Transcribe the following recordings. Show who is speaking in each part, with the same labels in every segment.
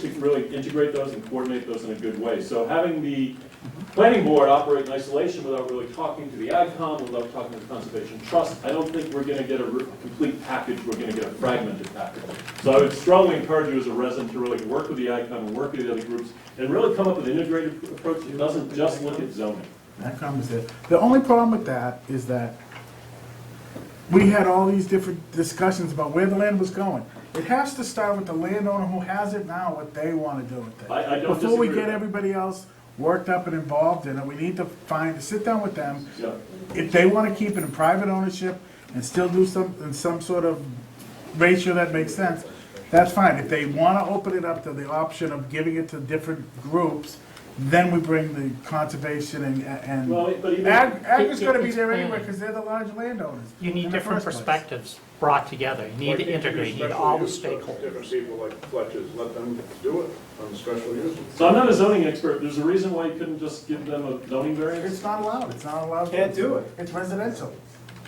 Speaker 1: to really integrate those and coordinate those in a good way. So having the planning board operate in isolation without really talking to the AgCom, without talking to the Conservation Trust, I don't think we're gonna get a re- complete package, we're gonna get a fragmented package. So I would strongly encourage you as a resident to really work with the AgCom and work with the other groups, and really come up with an integrated approach that doesn't just look at zoning.
Speaker 2: That comes in. The only problem with that is that we had all these different discussions about where the land was going. It has to start with the landowner who has it now, what they want to do with it.
Speaker 1: I- I don't
Speaker 2: Before we
Speaker 1: disagree with
Speaker 2: get
Speaker 1: that.
Speaker 2: everybody else worked up and involved in it, we need to find, sit down with them.
Speaker 1: Yeah.
Speaker 2: If they want to keep it in private ownership and still do some, in some sort of ratio that makes sense, that's fine. If they want to open it up to the option of giving it to different groups, then we bring the conservation and, and.
Speaker 1: Well, but even-
Speaker 2: Ag, ag is gonna be there
Speaker 3: It's-
Speaker 2: anyway, because they're the large landowners.
Speaker 3: You
Speaker 2: in
Speaker 3: need
Speaker 2: the
Speaker 3: different
Speaker 2: first place.
Speaker 3: perspectives brought together, you
Speaker 4: Like,
Speaker 3: need to integrate, you need
Speaker 4: special
Speaker 3: all the
Speaker 4: use, uh,
Speaker 3: stakeholders.
Speaker 4: Different people like Fletcher's, let them do it on special use.
Speaker 1: So I'm not a zoning expert, there's a reason why you couldn't just give them a zoning variance.
Speaker 2: It's not allowed, it's not allowed.
Speaker 5: Can't do it.
Speaker 2: It's residential.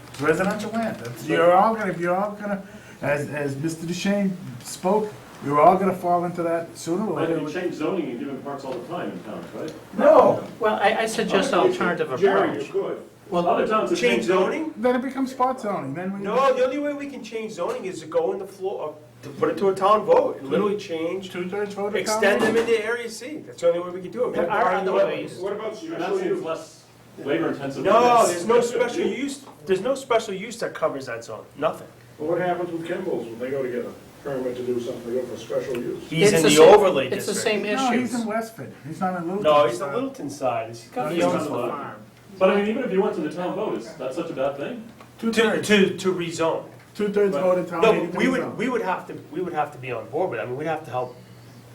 Speaker 2: It's residential land. That's- You're all gonna, you're all gonna, as, as Mr. Duchesne spoke, you're all gonna fall into that sooner or
Speaker 1: But
Speaker 2: later.
Speaker 1: you change zoning and give them parks all the time in towns, right?
Speaker 5: No.
Speaker 3: Well, I, I suggest an alternative
Speaker 4: Jerry, you
Speaker 3: approach.
Speaker 4: could.
Speaker 3: Well,
Speaker 1: Other towns have
Speaker 5: Change
Speaker 1: changed zoning.
Speaker 5: zoning?
Speaker 2: Then it becomes spot zoning, then we.
Speaker 5: No, the only way we can change zoning is to go in the floor, uh, to put it to a town vote, literally change,
Speaker 2: Two-thirds vote. of
Speaker 5: extend
Speaker 2: town.
Speaker 5: them into Area C. That's the only way we can do it.
Speaker 3: there are other ways,
Speaker 4: What about
Speaker 1: You're not
Speaker 4: special
Speaker 1: saying it's
Speaker 4: use?
Speaker 1: less labor intensive.
Speaker 5: No, there's no special use, there's no special use that covers that zone, nothing.
Speaker 4: Well, What happens with Kimball's when they go to get a permit to do something, they go for special use?
Speaker 5: He's
Speaker 3: It's
Speaker 5: in
Speaker 3: the
Speaker 5: the
Speaker 3: same-
Speaker 5: overlay
Speaker 3: it's the
Speaker 5: district.
Speaker 3: same
Speaker 2: No, he's
Speaker 3: issues.
Speaker 2: in Westford, he's not in Littleton.
Speaker 5: No, he's the Littleton side, he's got
Speaker 1: He's
Speaker 5: the
Speaker 1: on
Speaker 5: own
Speaker 1: the
Speaker 5: farm.
Speaker 1: farm. But I mean, even if you went to the town vote, is that such a bad thing?
Speaker 5: To,
Speaker 2: Two-thirds,
Speaker 5: to, to rezone.
Speaker 2: two-thirds vote of town.
Speaker 5: No,
Speaker 2: meeting
Speaker 5: but
Speaker 2: to
Speaker 5: we
Speaker 2: rezone.
Speaker 5: would, we would have to, we would have to be on board with it, I mean, we'd have to help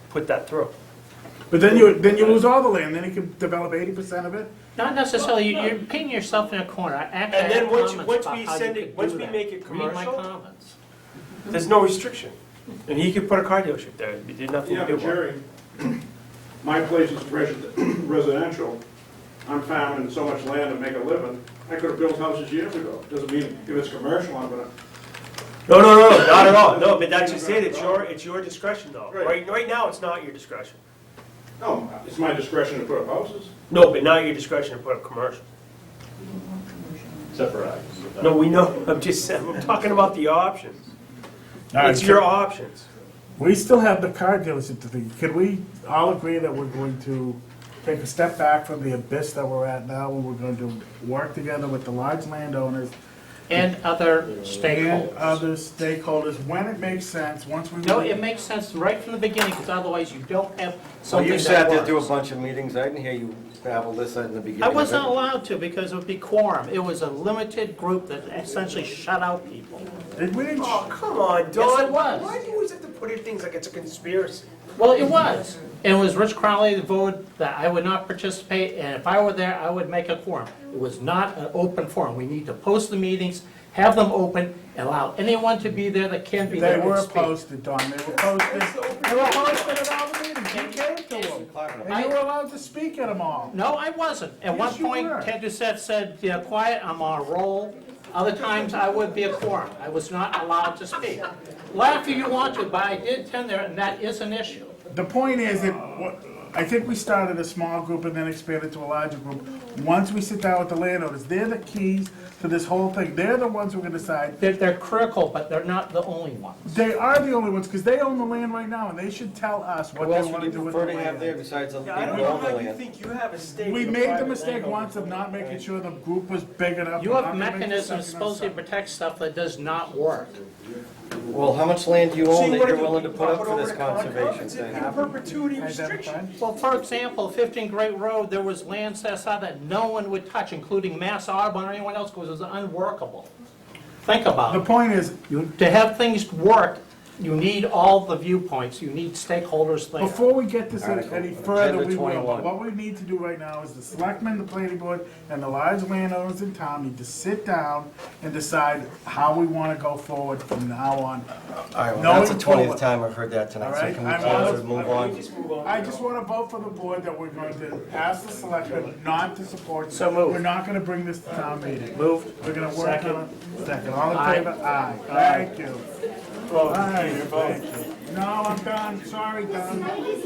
Speaker 5: put that through.
Speaker 3: Mm-hmm.
Speaker 2: But then you, then you lose all the land, then he can develop eighty percent of it.
Speaker 3: not necessarily, you- you're pinning yourself in a corner, I actually
Speaker 5: And then
Speaker 3: have comments
Speaker 5: once you-
Speaker 3: about
Speaker 5: once we
Speaker 3: how you
Speaker 5: send it-
Speaker 3: could
Speaker 5: once
Speaker 3: do
Speaker 5: we
Speaker 3: that.
Speaker 5: make it
Speaker 3: Read my
Speaker 5: commercial-
Speaker 3: comments.
Speaker 5: There's no restriction. And he could put a car dealership there, he did nothing
Speaker 6: Yeah,
Speaker 5: to do
Speaker 6: but
Speaker 5: with it.
Speaker 6: Jerry, my place is resi- residential. I'm farming so much land to make a living. I could have built houses years ago. Doesn't mean if it's commercial, I'm gonna,
Speaker 5: No, no, no, not at all, no, but that's just it, it's your, it's your discretion though.
Speaker 6: Right.
Speaker 5: Right, right now, it's not your discretion.
Speaker 6: no, it's my discretion to put up houses.
Speaker 5: No, but now your discretion to put up commercial.
Speaker 1: Except for ag.
Speaker 5: No, we know, I'm just saying, I'm talking about the options.
Speaker 2: All right,
Speaker 5: It's your options.
Speaker 2: We still have the car dealership to think. Could we all agree that we're going to take a step back from the abyss that we're at now, and we're going to work together with the large landowners
Speaker 3: And other
Speaker 2: and
Speaker 3: stakeholders.
Speaker 2: other stakeholders when it makes sense, once we.
Speaker 3: No, it makes sense right from the beginning, because otherwise you don't have
Speaker 7: So
Speaker 3: something
Speaker 7: you sat there
Speaker 3: that
Speaker 7: through a
Speaker 3: works.
Speaker 7: bunch of meetings, I didn't hear you babble this in the beginning.
Speaker 3: I
Speaker 7: of
Speaker 3: was
Speaker 7: it.
Speaker 3: not allowed to, because it would be quorum, it was a limited group that essentially shut out people.
Speaker 2: Did we?
Speaker 5: Oh, come on, Don.
Speaker 3: it was.
Speaker 5: Why do you always have to put in things like it's a conspiracy?
Speaker 3: Well, it was. And it was Rich Crowley that voted that I would not participate, and if I were there, I would make a quorum. It was not an open forum. We need to post the meetings, have them open, and allow anyone to be there that can be
Speaker 2: They
Speaker 3: there
Speaker 2: were
Speaker 3: and speak.
Speaker 2: posted, Don, they were posted. They were posted at all the meetings, you came to them. And you were allowed to speak at them all.
Speaker 3: No, I wasn't. At one
Speaker 2: Yes, you
Speaker 3: point,
Speaker 2: were.
Speaker 3: Ted Doucette said, "Yeah, quiet, I'm on a roll." Other times, I would be a quorum. I was not allowed to speak. Laugh if you want to, but I did attend there, and that is an issue.
Speaker 2: The point is that, what- I think we started a small group and then expanded to a larger group. Once we sit down with the landowners, they're the keys to this whole thing. They're the ones who are gonna decide.
Speaker 3: They're- They're critical, but they're not the only ones.
Speaker 2: They are the only ones, because they own the land right now, and they should tell us what
Speaker 7: Who
Speaker 2: they
Speaker 7: else would
Speaker 2: wanna
Speaker 7: you
Speaker 2: do with the
Speaker 7: prefer to have there
Speaker 2: land.
Speaker 7: besides other
Speaker 5: Yeah, I don't
Speaker 7: people who
Speaker 5: know
Speaker 7: own the
Speaker 5: how you
Speaker 7: land?
Speaker 5: think you have a stake.
Speaker 2: We
Speaker 5: in a
Speaker 2: made the
Speaker 5: private
Speaker 2: mistake
Speaker 5: landowner.
Speaker 2: once of not making sure the group was big enough.
Speaker 3: You
Speaker 2: We're
Speaker 3: have
Speaker 2: not gonna make the
Speaker 3: mechanisms
Speaker 2: second
Speaker 3: supposed to
Speaker 2: ourselves.
Speaker 3: protect stuff that does not work.
Speaker 7: Well, how much land do you
Speaker 5: So
Speaker 7: own
Speaker 5: you
Speaker 7: that
Speaker 5: wanna
Speaker 7: you're
Speaker 5: do-
Speaker 7: willing to
Speaker 5: you
Speaker 7: put
Speaker 5: wanna
Speaker 7: up for
Speaker 5: over
Speaker 7: this
Speaker 5: to Concom?
Speaker 7: conservation
Speaker 5: It's an
Speaker 7: thing?
Speaker 5: in perpetuity
Speaker 2: Identified.
Speaker 5: restriction.
Speaker 3: Well, for example, 15 Great Road, there was land set aside that no one would touch, including Mass Audubon or anyone else, because it was unworkable. Think
Speaker 2: The
Speaker 3: about it.
Speaker 2: point is,
Speaker 3: You- To have things work, you need all the viewpoints, you need stakeholders there.
Speaker 2: Before we get this any- any further,
Speaker 7: Agenda
Speaker 2: we will,
Speaker 7: 21.
Speaker 2: but what we need to do right now is the selectmen, the planning board, and the large landowners in town need to sit down and decide how we wanna go forward from now on.
Speaker 7: All right,
Speaker 2: No
Speaker 7: well, that's the
Speaker 2: involvement.
Speaker 7: twentieth time I've heard that
Speaker 2: All
Speaker 7: tonight,
Speaker 2: right,
Speaker 7: so can we
Speaker 2: I'm
Speaker 7: close
Speaker 2: out.
Speaker 7: and move
Speaker 5: Can we
Speaker 7: on?
Speaker 5: just move on?
Speaker 2: I just wanna vote for the board that we're going to ask the selectmen not to support.
Speaker 3: So moved.
Speaker 2: We're not gonna bring this to town meeting.
Speaker 3: Moved.
Speaker 2: We're gonna work on it. Second, all in
Speaker 3: Aye.
Speaker 2: favor? Aye. Thank you. All right, thank you. No, I'm done, sorry, Don.